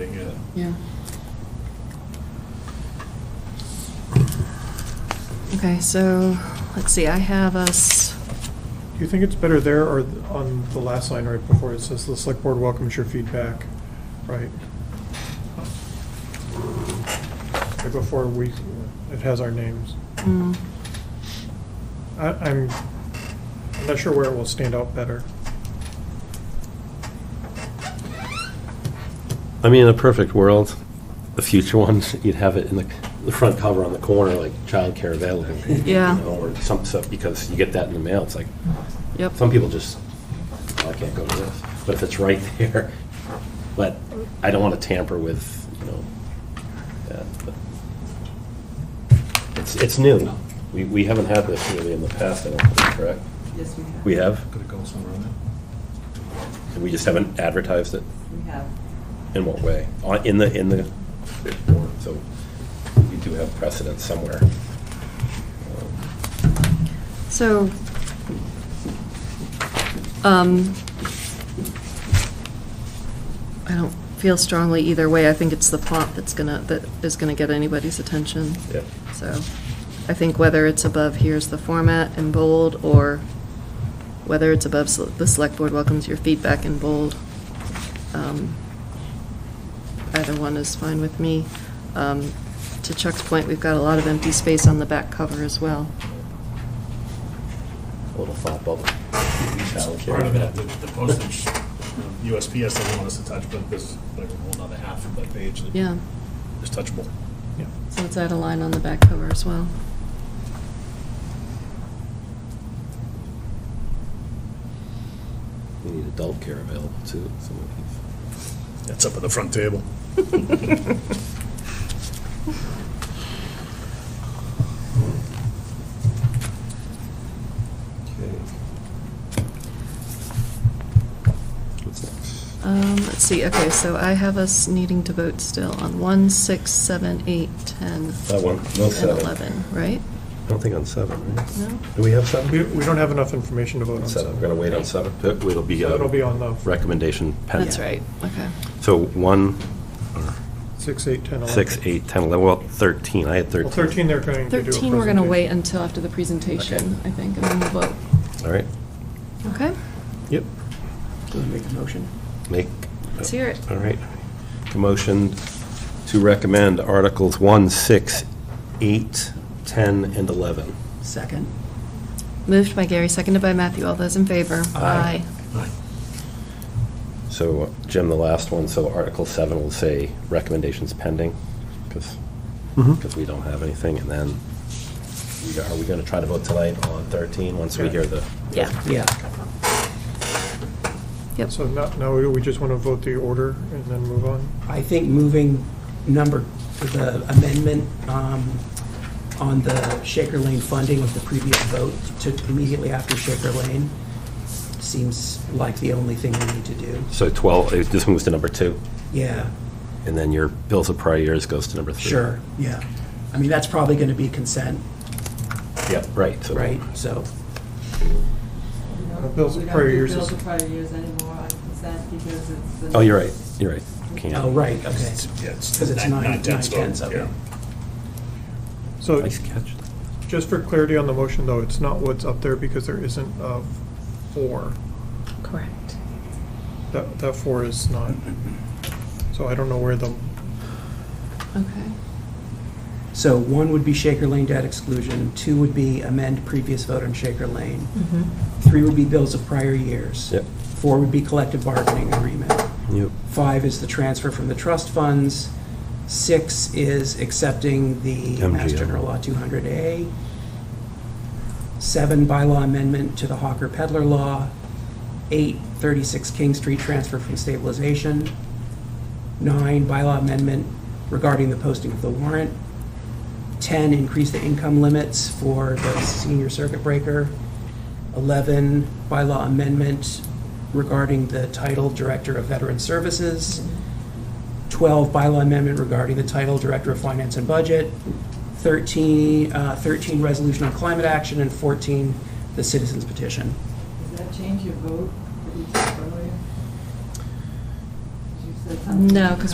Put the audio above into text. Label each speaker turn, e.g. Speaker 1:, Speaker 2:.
Speaker 1: uh,
Speaker 2: Yeah. Okay, so, let's see, I have us,
Speaker 3: Do you think it's better there or on the last line right before it says, "The select board welcomes your feedback," right? Right before we, it has our names.
Speaker 2: mm,
Speaker 3: I, I'm, I'm not sure where it will stand out better.
Speaker 4: I mean, in a perfect world, the future ones, you'd have it in the, the front cover on the corner, like childcare available. you
Speaker 2: Yeah.
Speaker 4: know, Or some stuff, because you get that in the mail, it's like,
Speaker 2: yep,
Speaker 4: some people just, "Oh, I can't go to this. But if it's right there, but I don't want to tamper with, you know, that, but. It's, it's new. We, we haven't had this really in the past, I don't think, correct?
Speaker 5: Yes, we have.
Speaker 4: We have,
Speaker 1: Could it go somewhere on
Speaker 4: we just haven't advertised it.
Speaker 5: We have.
Speaker 4: In what way? On- In the, in the, so we do have precedent somewhere.
Speaker 2: so, um, I don't feel strongly either way, I think it's the font that's gonna, that is gonna get anybody's attention.
Speaker 4: Yeah.
Speaker 2: So, I think whether it's above here's the format in bold, or whether it's above sel- the select board welcomes your feedback in bold, um, either one is fine with me. Um, To Chuck's point, we've got a lot of empty space on the back cover as well.
Speaker 4: A little thought bubble.
Speaker 1: Part of that, the the postage, you know, USPS doesn't want us to touch, but there's like a whole nother half of that page that
Speaker 2: Yeah,
Speaker 1: is touchable.
Speaker 3: Yeah.
Speaker 2: so let's add a line on the back cover as well.
Speaker 4: We need adult care available too, some of
Speaker 1: It's up at the front table.
Speaker 4: these. What's next?
Speaker 2: Um, Let's see, okay, so I have us needing to vote still on 1, 6, 7, 8, 10,
Speaker 4: That one, no
Speaker 2: and
Speaker 4: seven.
Speaker 2: 11, right?
Speaker 4: I don't think on seven, right?
Speaker 2: No?
Speaker 4: Do we have seven?
Speaker 3: We, we don't have enough information to vote on.
Speaker 4: Seven, we're gonna wait on seven. Uh, It'll be
Speaker 3: So It'll be
Speaker 4: a
Speaker 3: on the
Speaker 4: recommendation pending.
Speaker 2: That's right, okay.
Speaker 4: So one,
Speaker 3: six, eight, ten, eleven.
Speaker 4: six, eight, 10, 11, well, 13, I had 13.
Speaker 3: Well, thirteen they're going to do a
Speaker 2: 13, we're going to wait
Speaker 3: presentation.
Speaker 2: until after the presentation,
Speaker 4: Okay.
Speaker 2: I think, and then we'll vote.
Speaker 4: All right,
Speaker 2: Okay?
Speaker 3: Yep.
Speaker 4: make.
Speaker 2: Let's hear it.
Speaker 4: All right. The Motion to recommend Articles 1, 6, 8, 10, and 11.
Speaker 2: Second. Moved by Gary, seconded by Matthew. All those in favor?
Speaker 4: Aye.
Speaker 1: Right.
Speaker 4: So uh, Jim, the last one, so Article 7 will say recommendations pending, because,
Speaker 3: Mm-hmm.
Speaker 4: we don't have anything, and then, we- are we going to try to vote tonight on 13, once we hear the?
Speaker 2: Yeah.
Speaker 6: Yeah,
Speaker 2: Yep.
Speaker 3: So now, now we just want to vote the order and then move on?
Speaker 6: I think moving number, the amendment um, on the Shaker Lane funding with the previous vote to immediately after Shaker Lane seems like the only thing we need to do.
Speaker 4: So 12, eh, this moves to number 2,
Speaker 6: Yeah,
Speaker 4: and then your bills of prior years goes to number 3.
Speaker 6: sure, yeah. I mean, that's probably going to be consent,
Speaker 4: Yep, right. so-
Speaker 6: right? So,
Speaker 3: bills of
Speaker 5: We don't
Speaker 3: prior
Speaker 5: do
Speaker 3: years
Speaker 5: Bills
Speaker 3: is-
Speaker 5: of prior years anymore on consent because it's.
Speaker 4: Oh, you're right, you're right. Can't-
Speaker 6: oh, right, okay.
Speaker 1: It's- Yeah, it's.
Speaker 6: Because it's nine, nine
Speaker 1: tenths vote,
Speaker 6: tenths, okay.
Speaker 1: yeah.
Speaker 3: So
Speaker 4: Nice catch.
Speaker 3: just for clarity on the motion, though, it's not what's up there because there isn't a four.
Speaker 2: Correct.
Speaker 3: That, that four is not, so I don't know where the,
Speaker 2: Okay.
Speaker 6: So one would be Shaker Lane debt exclusion, two would be amend previous vote on Shaker Lane, three would be bills of prior years.
Speaker 4: Yep.
Speaker 6: Four would be collective bargaining agreement.
Speaker 4: Yep.
Speaker 6: Five is the transfer from the trust funds. Six is accepting the Mass
Speaker 4: MGL.
Speaker 6: General Law 200A. Seven, bylaw amendment to the Hawker Peddler Law. Eight, 36 King Street transfer from stabilization. Nine, bylaw amendment regarding the posting of the warrant. 10, increase the income limits for the senior circuit breaker. 11, bylaw amendment regarding the title Director of Veteran Services. 12, bylaw amendment regarding the title Director of Finance and Budget. 13, uh, 13, resolution on climate action, and 14, the citizens petition.
Speaker 5: Does that change your vote that you took earlier? 'Cause you said something-
Speaker 2: No, because